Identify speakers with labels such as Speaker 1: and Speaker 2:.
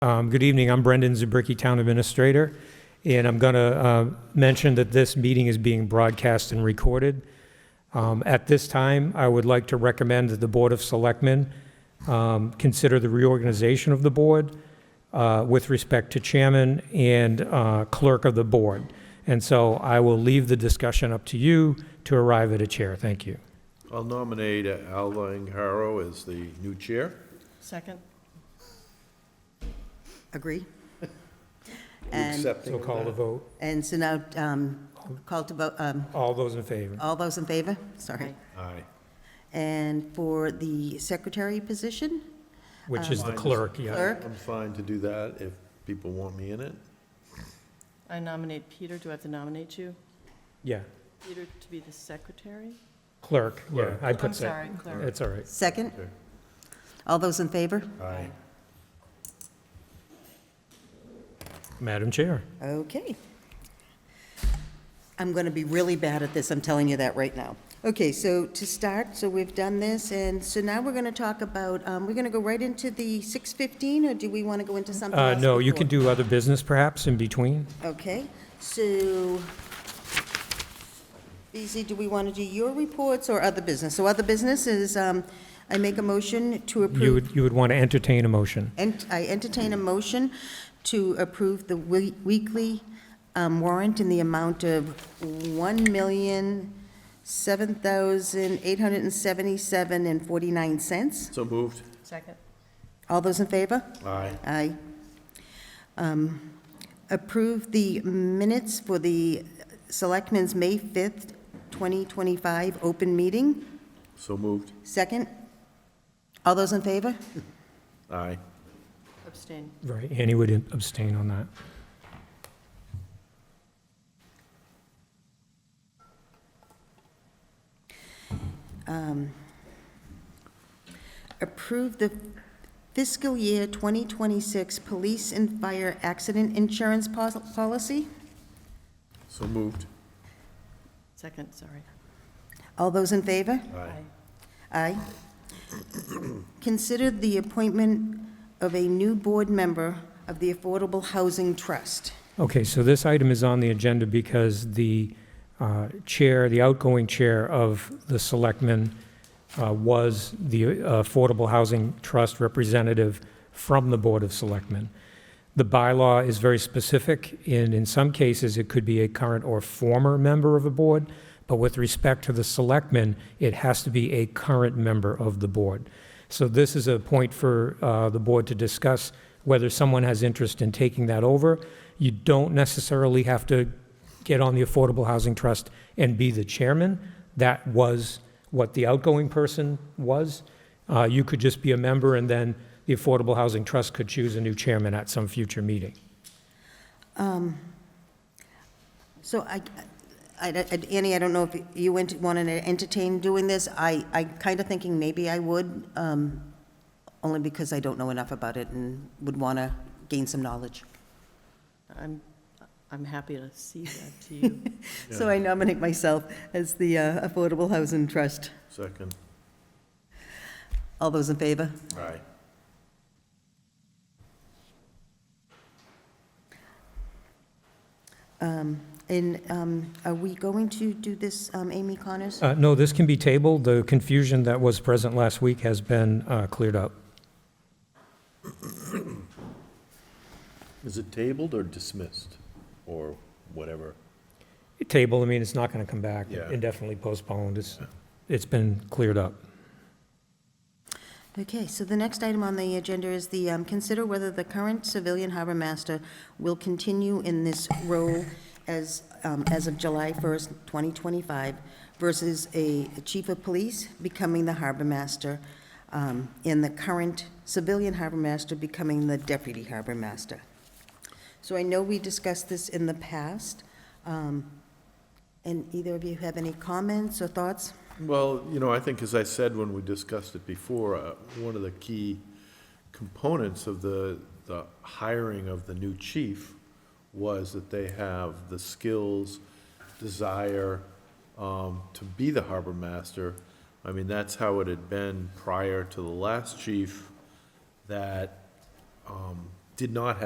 Speaker 1: Um, Good evening, I'm Brendan Zubricki, Town Administrator, and I'm going to mention that this meeting is being broadcast and recorded. Um, At this time, I would like to recommend that the Board of Selectmen um, consider the reorganization of the board uh, with respect to chairman and uh, clerk of the board. And so I will leave the discussion up to you to arrive at a chair. Thank you.
Speaker 2: I'll nominate uh, Al Langaro as the new chair.
Speaker 3: Second?
Speaker 4: Agree?
Speaker 2: You
Speaker 4: And,
Speaker 2: accepting
Speaker 1: So
Speaker 2: of
Speaker 1: call the
Speaker 2: that?
Speaker 1: vote.
Speaker 4: and so now, um, call to vote, um,
Speaker 1: All those in favor?
Speaker 4: all those in favor? Sorry.
Speaker 3: Aye.
Speaker 2: Aye.
Speaker 4: And for the secretary position,
Speaker 1: Which is the
Speaker 2: Minus-
Speaker 1: clerk, yeah.
Speaker 4: Clerk.
Speaker 2: I'm fine to do that if people want me in it.
Speaker 3: I nominate Peter. Do I have to nominate you?
Speaker 1: Yeah,
Speaker 3: Peter to be the secretary?
Speaker 1: clerk, yeah,
Speaker 2: Clerk.
Speaker 1: I put that.
Speaker 3: I'm sorry, clerk.
Speaker 1: It's all right.
Speaker 4: second?
Speaker 2: Okay.
Speaker 4: All those in favor?
Speaker 2: Aye.
Speaker 1: Madam Chair.
Speaker 4: Okay. I'm going to be really bad at this, I'm telling you that right now. Okay, so to start, so we've done this, and so now we're going to talk about, um, we're going to go right into the 6:15, or do we want to go into something
Speaker 1: Uh,
Speaker 4: else?
Speaker 1: No, you
Speaker 4: before?
Speaker 1: can do other business perhaps in between.
Speaker 4: Okay, so, BZ, do we want to do your reports or other business? So other business is, um, I make a motion to
Speaker 1: You
Speaker 4: approve,
Speaker 1: would, you would want to entertain a motion.
Speaker 4: and I entertain a motion to approve the we- weekly um, warrant in the amount of $1,007,877.49.
Speaker 2: So moved.
Speaker 3: Second?
Speaker 4: All those in favor?
Speaker 2: Aye.
Speaker 4: Aye. Um, Approve the minutes for the Selectmen's May 5th, 2025 open meeting.
Speaker 2: So moved.
Speaker 4: Second. All those in favor?
Speaker 2: Aye.
Speaker 3: Abstain.
Speaker 1: Right, Annie would abstain on that.
Speaker 4: Approve the fiscal year 2026 police and fire accident insurance pos- policy.
Speaker 2: So moved.
Speaker 3: Second, sorry.
Speaker 4: All those in favor?
Speaker 2: Aye.
Speaker 4: Aye. Consider the appointment of a new board member of the Affordable Housing Trust.
Speaker 1: Okay, so this item is on the agenda because the uh, chair, the outgoing chair of the selectmen uh, was the uh, Affordable Housing Trust representative from the Board of Selectmen. The bylaw is very specific, and in some cases, it could be a current or former member of a board, but with respect to the selectmen, it has to be a current member of the board. So this is a point for uh, the board to discuss whether someone has interest in taking that over. You don't necessarily have to get on the Affordable Housing Trust and be the chairman. That was what the outgoing person was. Uh, You could just be a member, and then the Affordable Housing Trust could choose a new chairman at some future meeting.
Speaker 4: So I, I- I- Annie, I don't know if you want to entertain doing this. I, I kind of thinking maybe I would, um, only because I don't know enough about it and would want to gain some knowledge.
Speaker 3: I'm, I'm happy to see that to you.
Speaker 4: So I nominate myself as the uh, Affordable Housing Trust.
Speaker 2: Second.
Speaker 4: All those in favor?
Speaker 2: Aye.
Speaker 4: And um, are we going to do this, um, Amy Connors?
Speaker 1: Uh, No, this can be tabled. The confusion that was present last week has been uh, cleared up.
Speaker 2: Is it tabled or dismissed? Or whatever?
Speaker 1: Table, I mean, it's not going to come back
Speaker 2: Yeah.
Speaker 1: indefinitely postponed. It's, it's been cleared up.
Speaker 4: Okay, so the next item on the agenda is the, um, consider whether the current civilian harbor master will continue in this role as, um, as of July 1st, 2025, versus a chief of police becoming the harbor master, um, and the current civilian harbor master becoming the deputy harbor master. So I know we discussed this in the past, um, and either of you have any comments or thoughts?
Speaker 2: Well, you know, I think, as I said when we discussed it before, uh, one of the key components of the, the hiring of the new chief was that they have the skills, desire um, to be the harbor master. I mean, that's how it had been prior to the last chief, that um, did not